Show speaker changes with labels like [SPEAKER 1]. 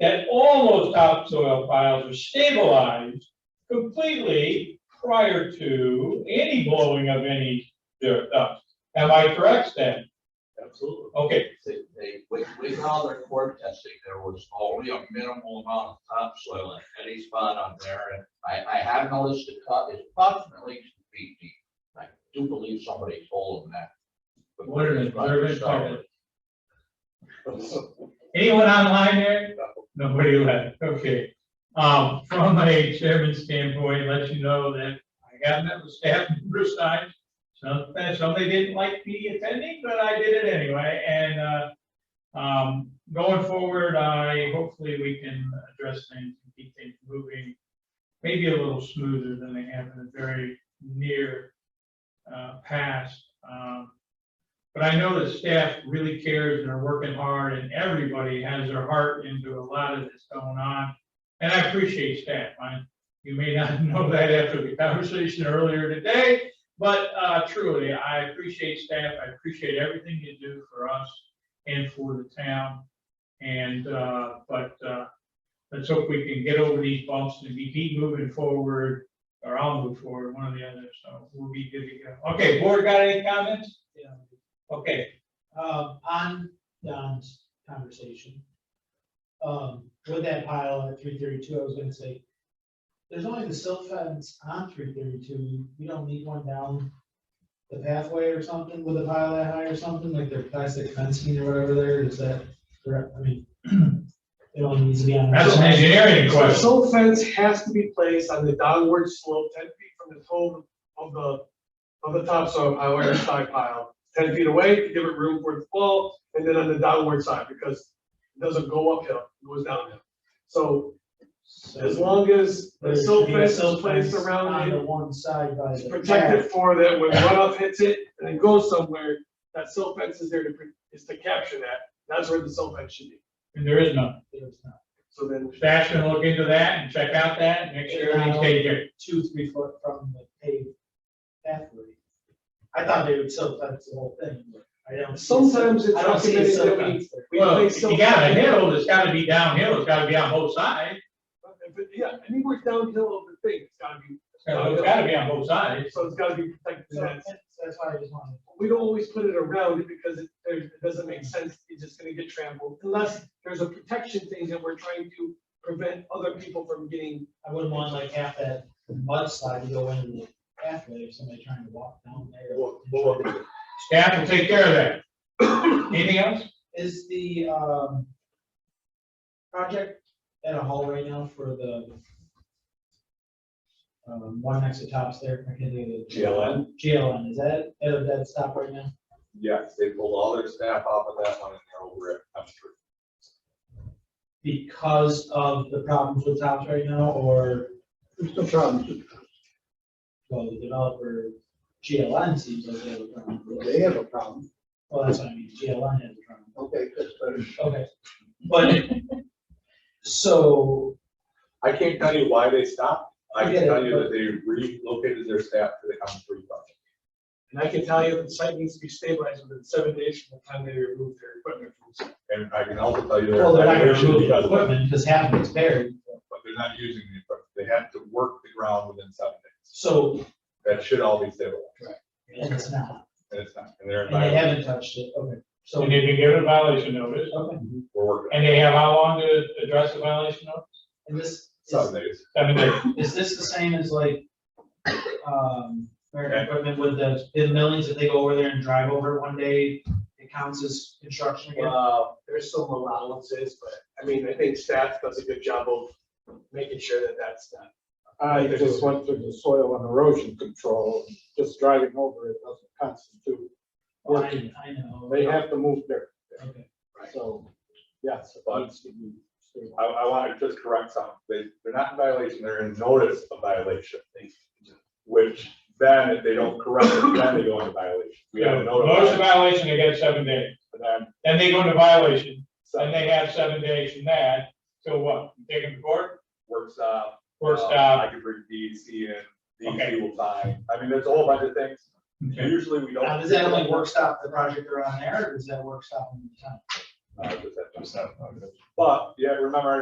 [SPEAKER 1] that all those topsoil piles are stabilized completely prior to any blowing of any dirt up. Am I correct, Stan?
[SPEAKER 2] Absolutely.
[SPEAKER 1] Okay,
[SPEAKER 2] They, they, we, we did all their core testing, there was only a minimal amount of topsoil in any spot on there, and I, I have noticed it cut, it's approximately two feet deep. I do believe somebody told them that. But
[SPEAKER 1] What an observant
[SPEAKER 2] So-
[SPEAKER 1] anyone online there? Nobody left, okay. Um, from a chairman standpoint, let you know that I have met with staff numerous times. Some, somebody didn't like me attending, but I did it anyway, and, uh, um, going forward, I, hopefully we can address things and keep things moving. Maybe a little smoother than they have in the very near, uh, past. Um, but I know that staff really cares and are working hard and everybody has their heart into a lot of this going on. And I appreciate staff. I, you may not know that after the conversation earlier today, but, uh, truly, I appreciate staff. I appreciate everything you do for us and for the town. And, uh, but, uh, let's hope we can get over these bumps and we keep moving forward, or I'll move forward, one or the other, so we'll be good to go. Okay, board got any comments?
[SPEAKER 3] Yeah.
[SPEAKER 1] Okay,
[SPEAKER 3] Uh, on Don's conversation. Um, with that pile at three thirty-two, I was gonna say, there's only the silt fence on three thirty-two, you don't need one down the pathway or something with a pile that high or something, like their plastic fencing or whatever there, is that, correct? I mean, it only needs to be on.
[SPEAKER 1] That's an engineering
[SPEAKER 4] So
[SPEAKER 1] question.
[SPEAKER 4] silt fence has to be placed on the downward slope, ten feet from the toe of the, of the topsoil pile or the side pile. Ten feet away to give it room for it to fall, and then on the downward side, because it doesn't go uphill, it goes downhill. So
[SPEAKER 3] So-
[SPEAKER 4] as long as
[SPEAKER 3] There
[SPEAKER 4] the
[SPEAKER 3] should
[SPEAKER 4] silt
[SPEAKER 3] be a
[SPEAKER 4] fence is
[SPEAKER 3] silt
[SPEAKER 4] placed
[SPEAKER 3] fence
[SPEAKER 4] around
[SPEAKER 3] On
[SPEAKER 4] it,
[SPEAKER 3] the one side by
[SPEAKER 4] it's
[SPEAKER 3] the.
[SPEAKER 4] protected
[SPEAKER 3] path.
[SPEAKER 4] for that when runoff hits it and it goes somewhere, that silt fence is there to, pre- is to capture that. That's where the silt fence should be.
[SPEAKER 1] And there is none.
[SPEAKER 3] There's not
[SPEAKER 4] So then.
[SPEAKER 1] Staff's gonna look into that and check out that, and make sure everything's taken care of.
[SPEAKER 3] Two, three foot from the paved pathway. I thought they would silt fence the whole thing, but I don't. see silt-
[SPEAKER 4] Sometimes it's
[SPEAKER 3] I don't see a
[SPEAKER 4] recommended
[SPEAKER 3] silt
[SPEAKER 4] that we-
[SPEAKER 3] fence there.
[SPEAKER 4] we
[SPEAKER 1] Well,
[SPEAKER 4] place
[SPEAKER 1] if
[SPEAKER 4] silt
[SPEAKER 1] you got a
[SPEAKER 4] fence-
[SPEAKER 1] hill, it's gotta be downhill, it's gotta be on both sides,
[SPEAKER 4] But yeah, anywhere downhill of the thing, it's gotta be,
[SPEAKER 1] it's gotta it's gotta be on both sides.
[SPEAKER 4] so it's gotta be protected.
[SPEAKER 3] So
[SPEAKER 4] That's-
[SPEAKER 3] that's- That's why I just wanted.
[SPEAKER 4] We don't always put it around it because it, there- it doesn't make sense, it's just gonna get trampled, unless there's a protection thing that we're trying to prevent other people from getting.
[SPEAKER 3] I wouldn't want like half that mudslide to go into the pathway if somebody trying to walk down there.
[SPEAKER 1] Staff will take care of that. Anything else?
[SPEAKER 3] Is the, um, project at a hall right now for the, um, one next to tops there, I can do the.
[SPEAKER 5] GLN?
[SPEAKER 3] GLN, is that at a dead stop right now?
[SPEAKER 5] Yes, they pulled all their staff off of that one and they're over at F Street.
[SPEAKER 3] Because of the problems with tops right now, or,
[SPEAKER 6] There's no problem.
[SPEAKER 3] well, the developer, GLN seems like they have a problem.
[SPEAKER 6] They have a problem.
[SPEAKER 3] Well, that's what I mean, GLN has a problem.
[SPEAKER 6] Okay, that's better.
[SPEAKER 3] Okay, but, so,
[SPEAKER 5] I can't tell you why they stopped. I
[SPEAKER 3] Yeah,
[SPEAKER 5] can tell you
[SPEAKER 3] but-
[SPEAKER 5] that they relocated their staff to the M three project.
[SPEAKER 4] And I can tell you, the site needs to be stabilized within seven days from the time they remove their equipment from the site.
[SPEAKER 5] And I can also tell you
[SPEAKER 3] well, they're not
[SPEAKER 5] that
[SPEAKER 3] gonna
[SPEAKER 5] they should be
[SPEAKER 3] remove the
[SPEAKER 5] done, but
[SPEAKER 3] equipment because half of it's buried.
[SPEAKER 5] they're not using the equipment. They have to work the ground within seven days.
[SPEAKER 3] So,
[SPEAKER 5] That should all be stabilized.
[SPEAKER 3] and it's not,
[SPEAKER 5] And it's not, and they're in
[SPEAKER 3] and they
[SPEAKER 5] violation.
[SPEAKER 3] haven't touched it, okay, so,
[SPEAKER 1] And they've been given a violation notice,
[SPEAKER 3] okay,
[SPEAKER 5] We're working
[SPEAKER 1] and they have how long to address the violation notice?
[SPEAKER 3] and this,
[SPEAKER 5] seven
[SPEAKER 3] is,
[SPEAKER 5] days.
[SPEAKER 1] Seven days.
[SPEAKER 3] is this the same as like, um, American equipment with the, in millings, if they go over there and drive over it one day, it counts as construction again?
[SPEAKER 4] Uh, there's some allowances, but I mean, I think staff does a good job of making sure that that's not. Uh,
[SPEAKER 6] I just went through the soil and erosion control, just driving over it doesn't constitute
[SPEAKER 3] I,
[SPEAKER 6] working.
[SPEAKER 3] I know.
[SPEAKER 6] They have to move dirt,
[SPEAKER 3] Okay.
[SPEAKER 6] so, yes, it needs to be stabilized.
[SPEAKER 5] I, I want to just correct something. They, they're not in violation, they're in notice of violation. Which then if they don't correct it, then they go into violation. We have a
[SPEAKER 1] Notice of
[SPEAKER 5] notice.
[SPEAKER 1] violation, they get seven days.
[SPEAKER 5] And then
[SPEAKER 1] Then they go into violation,
[SPEAKER 5] Seven
[SPEAKER 1] and they have seven days from that, so what? Take them to court,
[SPEAKER 5] works out.
[SPEAKER 1] court
[SPEAKER 5] uh,
[SPEAKER 1] stop,
[SPEAKER 5] I can bring DEC in,
[SPEAKER 1] Okay.
[SPEAKER 5] DEC will sign. I mean, there's a whole bunch of things.
[SPEAKER 1] Okay.
[SPEAKER 5] Usually we don't.
[SPEAKER 3] Now, does that only work stop the project around there, or does that work stop on the town?
[SPEAKER 5] Uh, just that- But, yeah, remember,